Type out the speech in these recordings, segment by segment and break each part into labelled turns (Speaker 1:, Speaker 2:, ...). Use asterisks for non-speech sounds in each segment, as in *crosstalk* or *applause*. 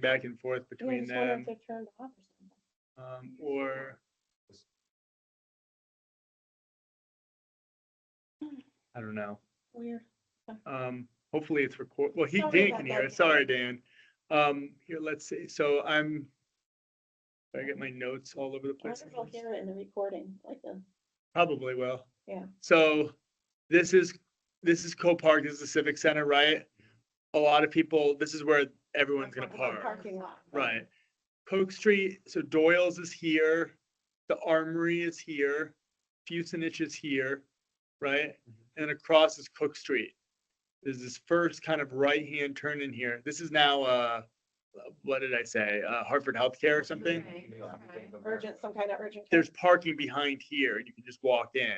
Speaker 1: back and forth
Speaker 2: Yeah, I
Speaker 1: between
Speaker 2: just wonder
Speaker 1: them,
Speaker 2: if they're turned off or something.
Speaker 1: um, or. I don't know.
Speaker 2: Weird.
Speaker 1: Um, hopefully it's record, well, he,
Speaker 2: Sorry
Speaker 1: Dan
Speaker 2: about
Speaker 1: can
Speaker 2: that,
Speaker 1: hear
Speaker 2: Dan.
Speaker 1: us. Sorry, Dan. Um, here, let's see. So I'm, I get my notes all over the
Speaker 2: I
Speaker 1: place.
Speaker 2: wonder if I'll hear it in the recording, like the,
Speaker 1: Probably will.
Speaker 2: Yeah.
Speaker 1: So this is, this is Copart, this is the Civic Center, right? A lot of people, this is where everyone's gonna
Speaker 2: the
Speaker 1: park.
Speaker 2: parking lot.
Speaker 1: Right. Coke Street, so Doyle's is here, the Armory is here, Fusenich is here, right? And across is Cook Street. There's this first kind of right-hand turn in here. This is now, uh, what did I say? Uh, Hartford Healthcare or something?
Speaker 2: Urgent, some kind of urgent. care.
Speaker 1: There's parking behind here. You can just walk in.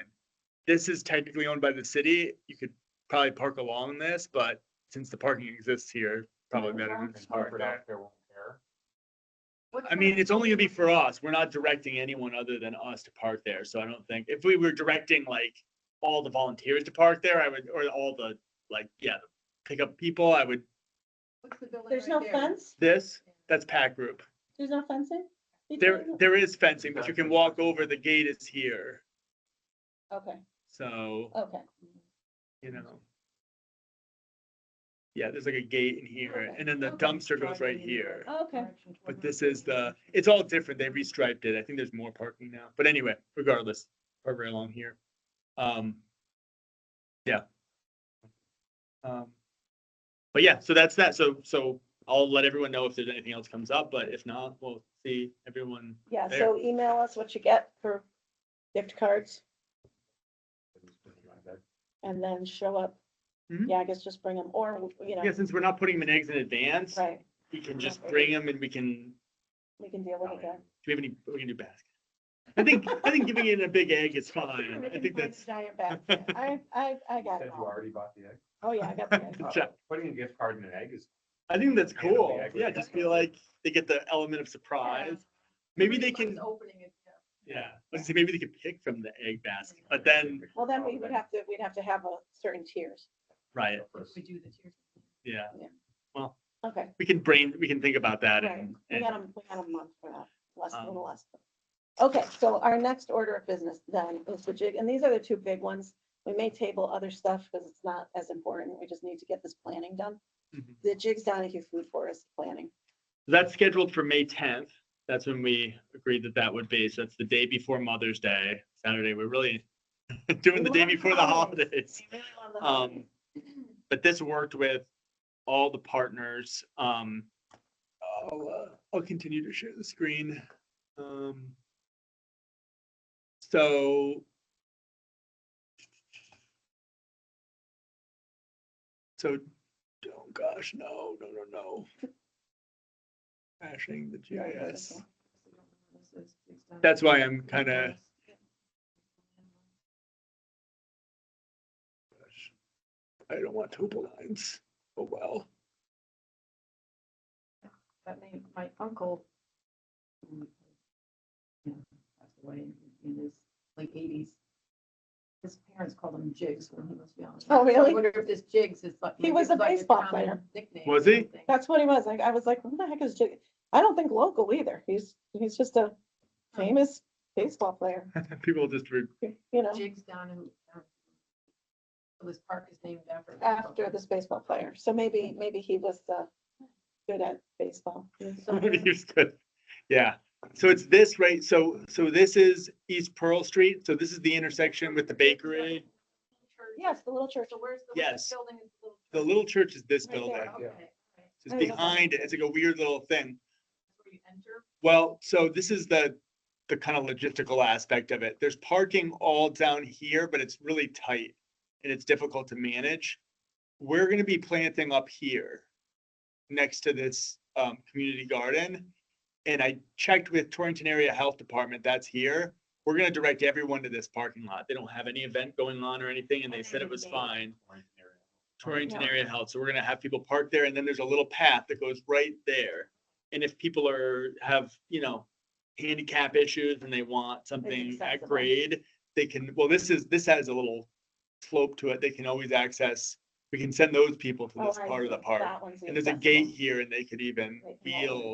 Speaker 1: This is technically owned by the city. You could probably park along this, but since the parking exists here, probably better to just park there. I mean, it's only gonna be for us. We're not directing anyone other than us to park there, so I don't think, if we were directing like all the volunteers to park there, I would, or all the, like, yeah, pickup people, I would,
Speaker 2: There's no fence?
Speaker 1: this, that's pack group.
Speaker 2: There's no fencing?
Speaker 1: There,
Speaker 2: between them?
Speaker 1: there is fencing, but you can walk over, the gate is here,
Speaker 2: Okay,
Speaker 1: so,
Speaker 2: okay.
Speaker 1: you know. Yeah, there's like a gate in here, and then the dumpster goes right here.
Speaker 2: Okay.
Speaker 1: But this is the, it's all different. They restriped it. I think there's more parking now. But anyway, regardless, we're very long here. Um, yeah. Um, but yeah, so that's that. So, so I'll let everyone know if there's anything else comes up, but if not, we'll see everyone.
Speaker 2: Yeah,
Speaker 1: There.
Speaker 2: so email us what you get for gift cards and then show up.
Speaker 1: Mhm.
Speaker 2: Yeah, I guess just bring them or, you know,
Speaker 1: Yeah, since we're not putting them in eggs in advance,
Speaker 2: uh, right,
Speaker 1: we can just bring them and we can,
Speaker 2: we can deal with it then.
Speaker 1: do we have any, we can do basket. I think, I think giving it a big egg is
Speaker 2: *laughs*
Speaker 1: fine. I think that's,
Speaker 2: Giant bag. I, I, I got
Speaker 1: *laughs*
Speaker 3: Said
Speaker 2: it.
Speaker 3: you
Speaker 2: all.
Speaker 3: already bought the egg.
Speaker 2: Oh, yeah, I got the idea.
Speaker 1: Good job.
Speaker 3: Putting a gift card in an egg is.
Speaker 1: I think that's
Speaker 3: Hand 'em the
Speaker 1: cool.
Speaker 3: egg with
Speaker 1: Yeah,
Speaker 3: the
Speaker 1: just
Speaker 3: cookie.
Speaker 1: feel like they get the element of surprise. Maybe they can,
Speaker 4: Opening it.
Speaker 1: yeah, let's see, maybe they could pick from the egg basket, but then,
Speaker 2: Well, then we would have to, we'd have to have a certain tiers.
Speaker 1: right,
Speaker 4: We do the tiers.
Speaker 1: yeah,
Speaker 2: Okay.
Speaker 1: we can brain, we can think about that
Speaker 2: Right,
Speaker 1: and,
Speaker 2: we
Speaker 1: and
Speaker 2: got a, we got a month for that, less, a
Speaker 1: Um,
Speaker 2: little less. Okay, so our next order of business then is the jig, and these are the two big ones. We may table other stuff because it's not as important. We just need to get this planning done.
Speaker 1: Mhm.
Speaker 2: The Jigs Donahue Food Forest planning.
Speaker 1: that's scheduled for May tenth. That's when we agreed that that would be, so that's the day before Mother's Day, Saturday, we're really *laughs* doing the day before the holidays.
Speaker 2: We really love the
Speaker 1: Um,
Speaker 2: holidays.
Speaker 1: but this worked with all the partners. Um, I'll, uh, I'll continue to share the screen. Um, so. So, oh gosh, no, no, no, no. Crashing the GIS. That's why I'm kind of, I don't want topo lines. Oh, well.
Speaker 4: But my, my uncle. um, you know, Passed away in his late eighties. His parents called him Jigs when he was young.
Speaker 2: Oh, really?
Speaker 4: I wonder if this Jigs is like.
Speaker 2: He was a
Speaker 4: like
Speaker 2: baseball
Speaker 4: common
Speaker 2: player.
Speaker 4: nickname
Speaker 1: Was
Speaker 4: or
Speaker 1: he?
Speaker 4: something.
Speaker 2: That's what he was. Like, I was like, who the heck is Jig? I don't think local either. He's, he's just a famous baseball player,
Speaker 1: People just, re-
Speaker 2: you know,
Speaker 4: Jigs down in. down- so This park is named after. a baseball
Speaker 2: after this baseball player. So maybe, maybe he was, uh, good at baseball.
Speaker 1: *laughs*
Speaker 4: player. So-
Speaker 1: He's good. Yeah, so it's this, right, so, so this is East Pearl Street, so this is the intersection with the bakery.
Speaker 2: Yes, the little church.
Speaker 4: So where's the?
Speaker 1: Yes.
Speaker 4: Building is the little.
Speaker 1: The little church is this
Speaker 2: Right there.
Speaker 1: building,
Speaker 4: Okay.
Speaker 3: Yeah.
Speaker 4: alright.
Speaker 1: it's behind it, it's like a weird little thing.
Speaker 4: Where you enter.
Speaker 1: Well, so this is the, the kind of logistical aspect of it. There's parking all down here, but it's really tight and it's difficult to manage. We're gonna be planting up here next to this, um, community garden. And I checked with Torrington Area Health Department, that's here. We're gonna direct everyone to this parking lot. They don't have any event going on or anything and they said it was fine. Torrington
Speaker 2: Yeah.
Speaker 1: Area Health, so we're gonna have people park there, and then there's a little path that goes right there. And if people are, have, you know, handicap issues and they want something at
Speaker 2: accessible.
Speaker 1: grade, they can, well, this is, this has a little slope to it, they can always access We can send those people to
Speaker 2: Oh,
Speaker 1: this
Speaker 2: I
Speaker 1: part of the
Speaker 2: see.
Speaker 1: park.
Speaker 2: That one's
Speaker 1: And there's a
Speaker 2: inaccessible.
Speaker 1: gate here and they could even
Speaker 2: They can walk in.
Speaker 1: feel